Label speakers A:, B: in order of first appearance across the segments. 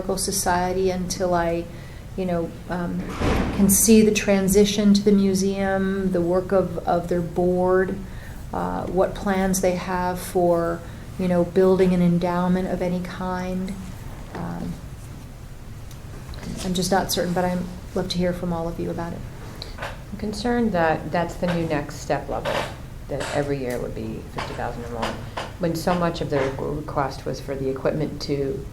A: Historical Society until I, you know, um, can see the transition to the museum, the work of, of their board, uh, what plans they have for, you know, building an endowment of any kind. Um, I'm just not certain, but I'd love to hear from all of you about it.
B: I'm concerned that that's the new next step level, that every year would be 50,000 or more, when so much of the requ- request was for the equipment to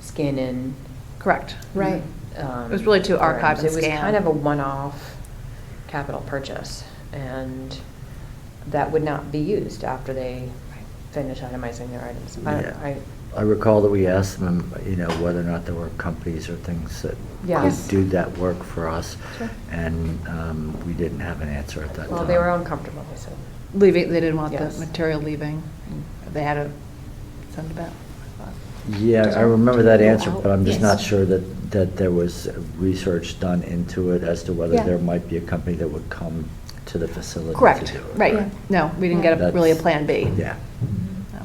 B: scan in.
C: Correct.
A: Right.
B: um,
C: It was really to archive
B: forms.
C: and
B: It was
C: scan.
B: kind of a one-off capital purchase, and that would not be used after they finish itemizing their items. I don't-
D: Yeah.
B: I-
D: I recall that we asked them, you know, whether or not there were companies or things that
B: Yes.
D: could do that work for us,
B: Sure.
D: and um, we didn't have an answer at that time.
B: Well, they were uncomfortable, they said.
C: Leaving, they didn't want the
B: Yes.
C: material leaving. They had to send it back.
D: Yeah, I remember that answer, but I'm just not
A: Yes.
D: sure that, that there was research done into it as to whether
A: Yeah.
D: there might be a company that would come to the facility to
C: Correct,
D: do it.
A: Yeah.
C: right. No, we didn't get a-
D: That's-
C: really a Plan B.
D: Yeah.
C: No.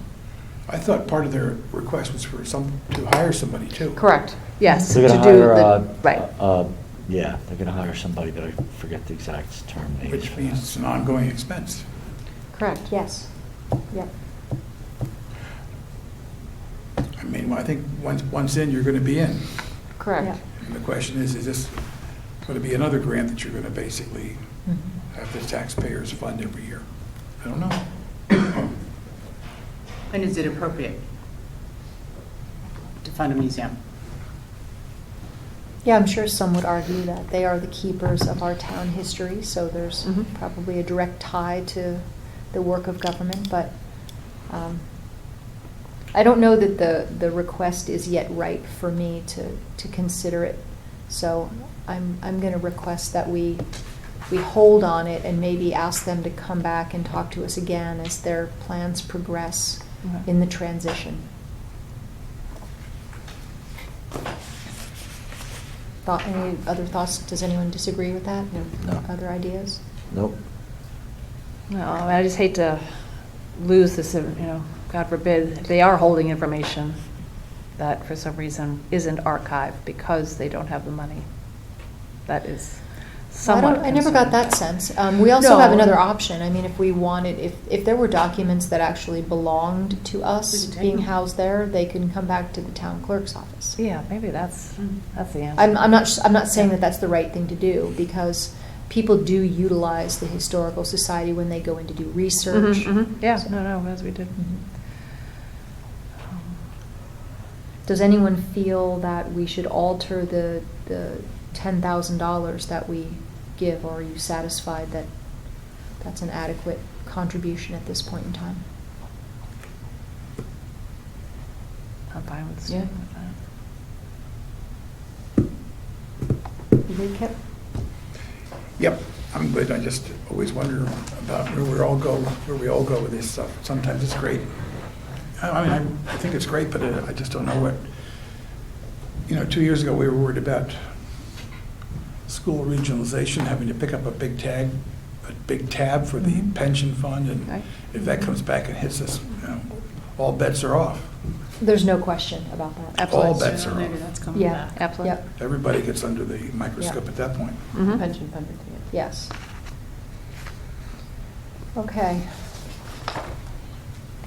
E: I thought part of their request was for some, to hire somebody too.
B: Correct.
C: Yes, to
D: They're
C: do
D: gonna hire, uh,
C: the, right.
D: uh, Yeah, they're gonna hire somebody, but I forget the exact term they use
E: Which
D: for
E: means
D: that.
E: it's an ongoing expense.
B: Correct.
A: Yes. Yep.
E: I mean, well, I think once, once in, you're going to be in.
B: Correct.
A: Yeah.
E: And the question is, is this going to be another grant that you're going to basically
A: Mhm.
E: have the taxpayers fund every year? I don't know.
F: And is it appropriate to fund a museum?
A: Yeah, I'm sure some would argue that they are the keepers of our town history, so there's
C: Mhm.
A: probably a direct tie to the work of government, but um, I don't know that the, the request is yet ripe for me to, to consider it. So I'm, I'm going to request that we, we hold on it and maybe ask them to come back and talk to us again as their plans progress
C: Okay.
A: in the transition. Thought, any other thoughts? Does anyone disagree with that?
D: No.
A: Other ideas?
D: Nope.
C: No, I mean, I just hate to lose this, you know, God forbid, if they are holding information that for some reason isn't archived because they don't have the money. That is
A: Well, I
C: somewhat
A: don't- I never got
C: concerning.
A: that sense. Um, we also have
C: No.
A: another option. I mean, if we wanted, if, if there were documents that actually belonged to us
F: We could take
A: being
F: them.
A: housed there, they can come back to the town clerk's office.
C: Yeah, maybe that's, that's the answer.
A: I'm, I'm not, s- I'm not saying that that's the right thing to do because people do utilize the historical society when they go in to do
C: Mhm,
A: research.
C: mhm. Yeah,
A: So-
C: no, no, as we did. Um,
A: Mhm. Does anyone feel that we should alter the, the ten thousand dollars that we give, or are you satisfied that that's an adequate contribution at this point in time?
C: I'm fine with
A: Yeah.
C: staying with that.
A: You good, Kip?
E: Yep, I'm good. I just always wonder about where we all go, where we all go with this stuff. Sometimes it's great. I I mean, I I think it's great, but uh, I just don't know what, you know, two years ago, we were worried about school regionalization, having to pick up a big tag, a big tab for the
C: Mhm.
E: pension fund, and
C: Right.
E: if that comes back and hits us, you know, all bets are off.
A: There's no question about that.
E: All
C: Absolutely.
E: bets are
F: Maybe
E: off.
F: that's coming
A: Yeah.
F: back.
C: Absolutely.
A: Yep,
E: Everybody gets under the microscope at that point.
C: Mhm.
B: Pension fund, yeah.
A: yes. Okay.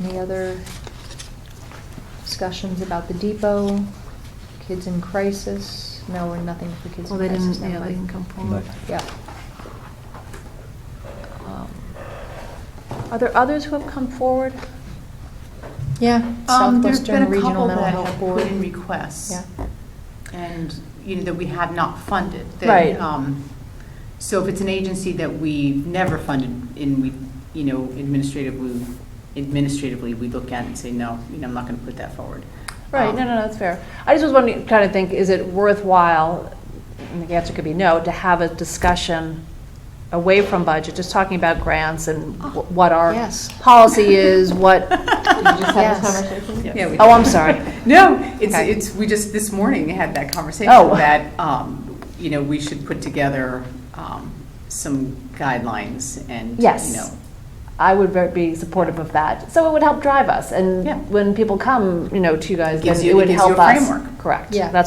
A: Any other discussions about the depot, kids in crisis? No, we're nothing for kids in
C: Well, they
A: crisis.
C: didn't,
A: never
C: yeah, they
A: mind.
C: didn't come forward.
A: Yeah.
C: Um, Are there others who have come forward?
A: Yeah,
F: Um, there's been
A: Southwestern
F: a
A: Regional
F: couple
A: Mental
F: that
A: Health
F: have put in
A: Board.
F: requests,
A: Yeah,
F: and, you know, that we have not funded. that,
C: Right.
F: um, So if it's an agency that we've never funded, and we, you know, administratively, administratively, we look at it and say, no, you know, I'm not going to put that forward.
C: Right,
F: Um,
C: no, no, no, that's fair. I just was wondering, trying to think, is it worthwhile, and the answer could be no, to have a discussion away from budget, just talking about grants and
F: Oh,
C: wh- what our
A: yes.
C: policy is, what,
A: Yes.
F: Yeah, we-
C: oh, I'm sorry.
F: No, it's,
C: Okay.
F: it's, we just, this morning had that conversation
C: Oh.
F: that, um, you know, we should put together, um, some guidelines and, you
C: Yes.
F: know.
C: I would ver- be supportive of that. So it would help drive us,
F: Yeah.
C: and when people come, you know, to you guys, then
F: Gives
C: it
F: you- it
C: would
F: gives you
C: help
F: a
C: us.
F: framework.
C: Correct.
A: Yeah.
C: That's